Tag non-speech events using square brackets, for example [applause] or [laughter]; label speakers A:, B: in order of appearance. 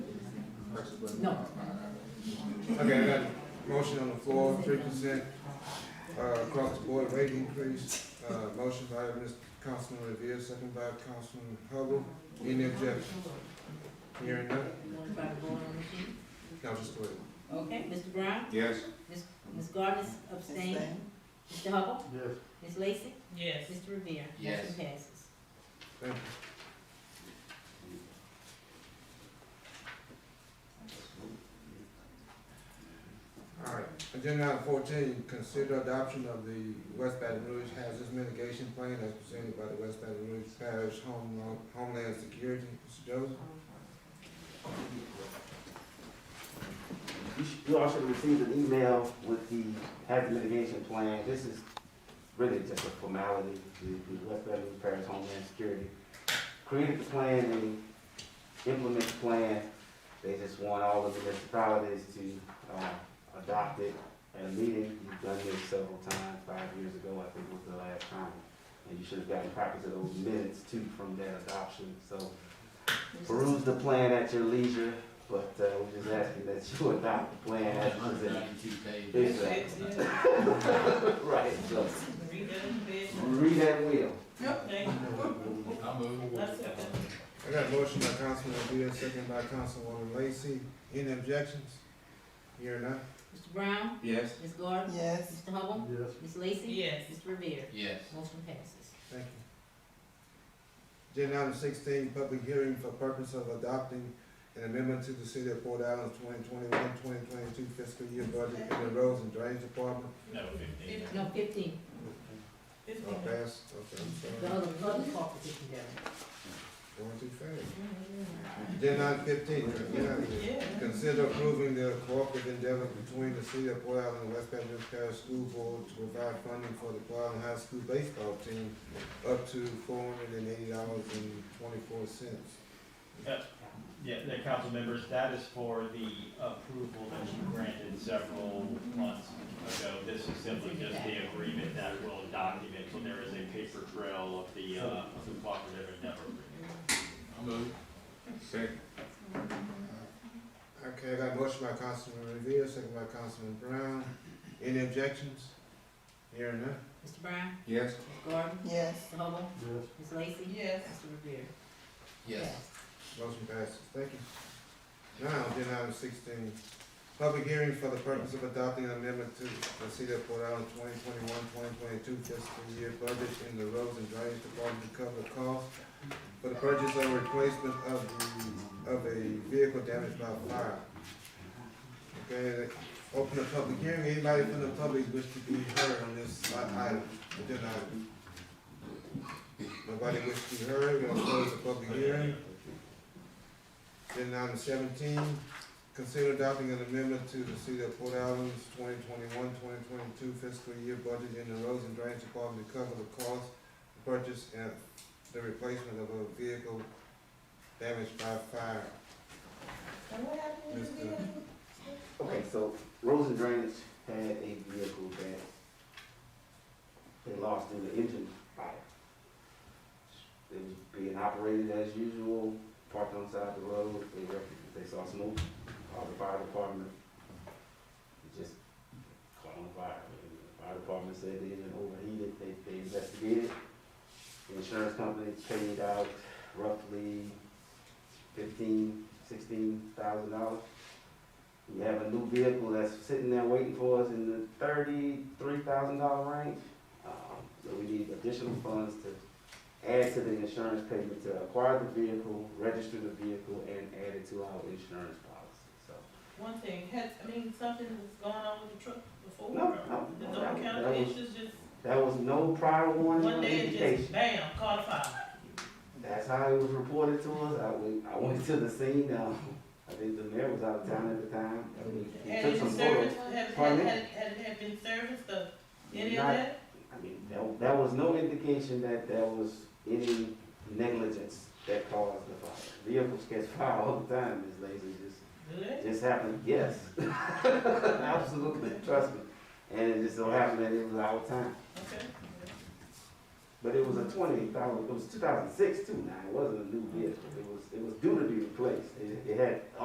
A: question, but.
B: No.
A: Okay, I got a motion on the floor, three percent, uh, across the board rate increase, uh, motion by Mr. Councilman Revere, second by Councilman Hubble, any objection? Hearing none,
B: Going by the vote on the sheet.
A: now just wait.
B: Okay, Mr. Brown,
C: Yes.
B: Ms. Gardner abstained, Mr. Hubble,
D: Yes.
B: Ms. Lacy,
E: Yes.
B: Mr. Revere.
C: Yes.
B: Motion passes.
A: Thank you. All right, agenda item fourteen, consider adoption of the West Baton Rouge Hazardous Mitigation Plan as presented by the West Baton Rouge Parish Home- Homeland Security. Mr. Joseph?
D: You should- you all should have received an email with the hazard mitigation plan. This is really just a formality. The, the West Baton Rouge Parish Homeland Security created the plan and implemented the plan. They just want all of the municipalities to, uh, adopt it at a meeting. You've done this several times, five years ago, I think was the last time. And you should have gotten copies of those minutes too from that adoption, so peruse the plan at your leisure, but uh, we're just asking that you [laughs] adopt the plan as presented. Exactly. [laughs] Right, so
E: Read that in bed.
D: read that will.
E: Okay,
C: I move.
E: that's it.
A: I got a motion by Councilman Revere, second by Councilwoman Lacy. Any objections? Hearing none?
B: Mr. Brown,
C: Yes.
B: Ms. Gardner,
F: Yes.
B: Mr. Hubble,
D: Yes.
B: Ms. Lacy.
E: Yes.
B: Mr. Revere.
C: Yes.
B: Motion passes.
A: Thank you. Agenda item sixteen, public hearing for purpose of adopting an amendment to the City of Port Allen's 2021-2022 fiscal year budget in the Roads and Drainage Department.
C: No, fifteen.
B: No, fifteen,
E: It's
A: Oh,
E: been-
A: pass, okay, I'm
B: the
A: sorry,
B: other, other corporate is together.
A: going too fast. Agenda item fifteen, get out of here.
E: Yeah.
A: Consider approving the cooperative endeavor between the City of Port Allen and West Baton Rouge Parish School Board to provide funding for the Port Allen High School baseball team up to four hundred and eighty dollars and twenty-four cents.
G: Yeah, the council members, that is for the approval that you granted several months ago. This is simply just the agreement that will document, so there is a paper trail of the, uh, of the cooperative endeavor agreement.
C: I move. Second.
A: Okay, I got a motion by Councilman Revere, second by Councilman Brown. Any objections? Hearing none.
B: Mr. Brown,
C: Yes.
B: Ms. Gardner,
F: Yes.
B: Mr. Hubble,
D: Yes.
B: Ms. Lacy.
E: Yes.
B: Mr. Revere.
C: Yes.
A: Motion passes. Thank you. Now, agenda item sixteen, public hearing for the purpose of adopting an amendment to the City of Port Allen 2021-2022 fiscal year budget in the Roads and Drainage Department to cover costs for the purchase or replacement of the, of a vehicle damaged by fire. Okay, open the public hearing. Anybody from the public wish to be heard on this item, agenda item? Nobody wish to be heard. We're gonna close the public hearing. Agenda item seventeen, consider adopting an amendment to the City of Port Allen's 2021-2022 fiscal year budget in the Roads and Drainage Department to cover the cost, of purchase, and the replacement of a vehicle damaged by fire.
E: And what happened
A: Mr.
D: Okay, so Roads and Drainage had a vehicle that they lost in the engine fire. It was being operated as usual, parked on the side of the road, they, rec- they saw smoke, called the fire department. It just caught on fire. And the Fire department said the engine overheated, they, they investigated. The insurance company paid out roughly fifteen, sixteen thousand dollars. We have a new vehicle that's sitting there waiting for us in the thirty-three thousand dollar range. Um, So we need additional funds to add to the insurance payment to acquire the vehicle, register the vehicle, and add it to our insurance policy, so.
E: One thing, had, I mean, something was going on with the truck before.
D: No, no,
E: The
D: no,
E: Dover
D: that-
E: County
D: that was-
E: issues just,
D: There was no prior warning
E: one
D: or
E: day it just
D: indication.
E: bam, caught fire.
D: That's how it was reported to us. I went, I went to the scene, um, [laughs] I think the mayor was out of town at the time. and we- we
E: Had
D: took
E: it
D: some
E: been
D: photos.
E: serviced, had, had,
D: Pardon me?
E: had, had it been serviced, or any of
D: Not-
E: that?
D: I mean, there, there was no indication that there was any negligence that caused the fire. Vehicles catch fire all the time, Ms. Lacy, just,
E: Good.
D: just happened, yes. [laughs] Absolutely, trust me. And it just so happened that it was our time.
E: Okay.
D: But it was a twenty thousand, it was two thousand six too now, it wasn't a new vehicle. It was, it was due to be replaced. It, it had